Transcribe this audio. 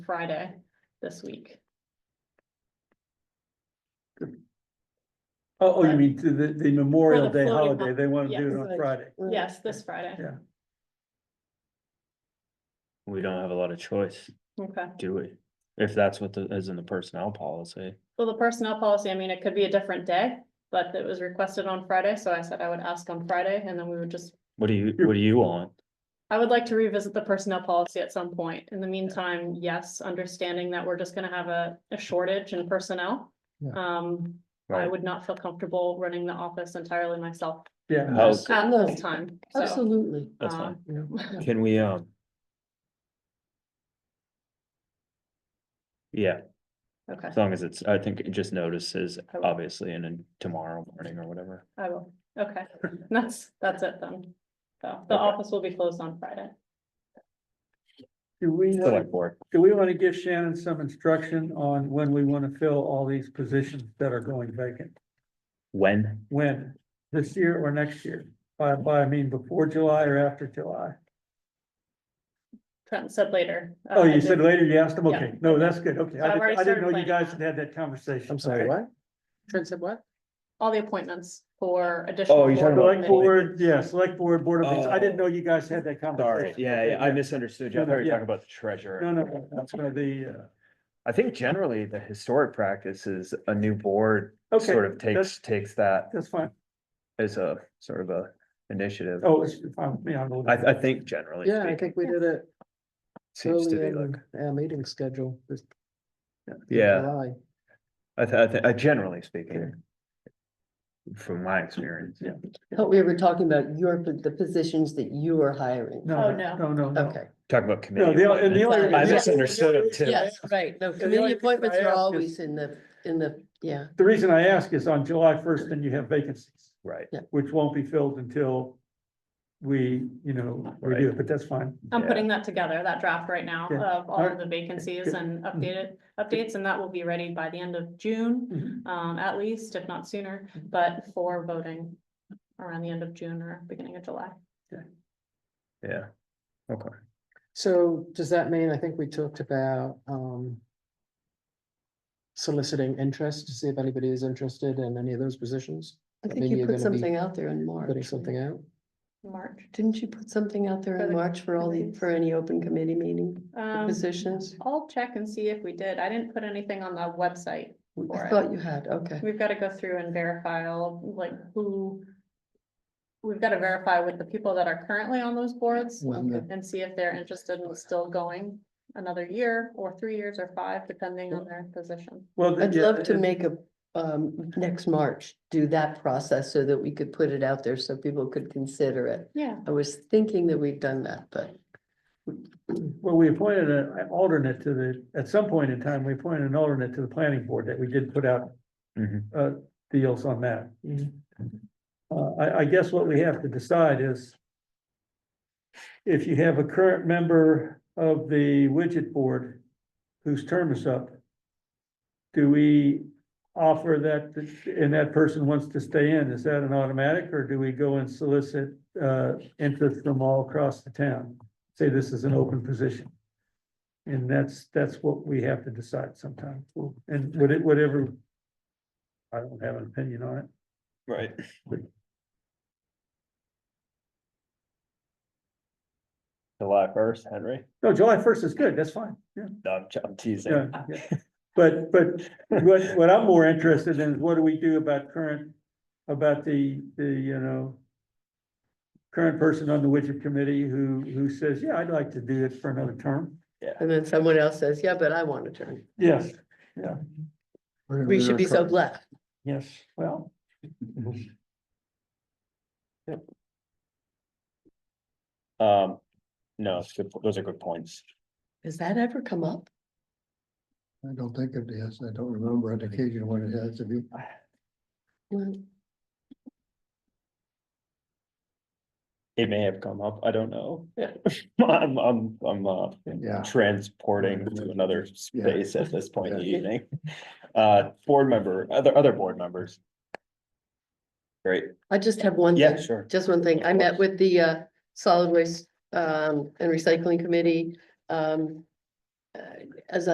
Friday this week. Oh, oh, you But- mean to the, the Memorial For the Day floating holiday, hol- they want to do it yes. on Friday. Yes, this Friday. Yeah. We don't have a lot of choice, Okay. do we? If that's what the, is in the personnel policy. Well, the personnel policy, I mean, it could be a different day, but it was requested on Friday, so I said I would ask on Friday and then we would just. What do you, what do you want? I would like to revisit the personnel policy at some point. In the meantime, yes, understanding that we're just gonna have a, a shortage in personnel. Yeah. Um, I Right, would not feel comfortable running the office entirely myself Yeah. How- that's- at No. this time, so. Absolutely. that's um, fine. Yeah. Can we, um? Yeah, Okay, as long as it's, I think it just notices, I will. obviously, and then tomorrow morning or whatever. I will. Okay, that's, that's it then. So the Okay. office will be closed on Friday. Do we, wanna- Select board. do we want to give Shannon some instruction on when we want to fill all these positions that are going vacant? When? When? This year or next year? By, by, I mean, before July or after July? Trent said later. Uh, Oh, I you said did- later, you asked them? Yeah. Okay, no, that's good, okay. So I've I already didn't, I started didn't know you planning guys that. had had that conversation. what? Trent said what? All the appointments for additional. you're talking board Select about- committees. board, yeah, select board, board of, Ex- I didn't know you guys had that Sorry, conversation. yeah, yeah, I misunderstood you. No, I no, thought you were yeah. talking about the No, treasurer. no, no, that's uh, why the, I think generally the historic practice is a new board uh, okay. sort of that's- takes, takes that That's fine. as a sort of a initiative. Oh, it's, fine with me, I'm. I, I think generally Yeah, I speaking, think we did it seems to early be in like, our meeting schedule. this yeah. July. I th- I th- I generally speaking. From my experience. Yeah. But we were talking about your, po- the positions that you are hiring. Oh, no. No, no, no. Okay. Talk about No, committee. the, and the appointments. only. I misunderstood him too. Yes, right. No, the only committee reason appointments I are ask is- always in the, in the, yeah, The reason I ask is on July first, then you have vacancies, Right, which won't be filled until we, you know, we do, it, but that's fine. I'm Yeah. putting that together, that draft right now Yeah. of all of the vacancies and updated updates, and that will be ready by the end of June. Mm-hmm. Mhm. Um, at least, if not sooner, but for voting around the end of June or beginning of July. yeah. Okay. So does that mean, I think we talked about, um, soliciting interest to see if anybody is interested in any of those positions, I But think maybe you you're put gonna be something out there in March. putting something out. March. Didn't you put something out there For in the March for all the, committees. for any open committee meeting Um, positions? I'll check and see if we did. I didn't put anything on the website. for I it. thought you had, okay. We've got to go through and verify all, like, who. We've got to verify with the people that are currently on those boards When the- and see if they're interested in still going another year or three years or five, depending on their position. Well, I'd yeah, love to it- make a, um, next March, do that process so that we could put it out there so people could consider it. Yeah, I was thinking that we'd done that, but Well, we appointed a- an alternate to the, at some point in time, we appointed an alternate to the planning board that we did put out uh, Mhm. deals on that. Mhm. Uh, I, I guess what we have to decide is if you have a current member of the widget board whose term is up, do we offer that, and that person wants to stay in, is that an automatic, or do we go and solicit uh, interest from all across the town? Say this is an open position. And that's, that's what we have to decide sometime, and what it- whatever I don't have an opinion on it. Right. July first, Henry, No, July first is good, that's fine, yeah, No, I'm ch- I'm yeah, teasing. yeah. But, but what, what I'm more interested in is what do we do about current, about the, the, you know, current person on the widget committee who, who says, yeah, I'd like to do it for another term. And then someone else says, yeah, but I want to turn. Yes, We should be so glad. yes, well, Um, no, it's good, those are good points. Has that ever come up? I don't think it is. I don't remember an occasion when it has to be. Well, It may have come up, I don't know. Yeah. I'm, I'm, I'm, uh, Yeah. transporting to another Yeah. space at this point in the Yeah. evening. Uh, board member, other, other board members. Great, I just have one yeah, thing, sure. just one thing. I met with the uh solid waste um and recycling committee um uh, as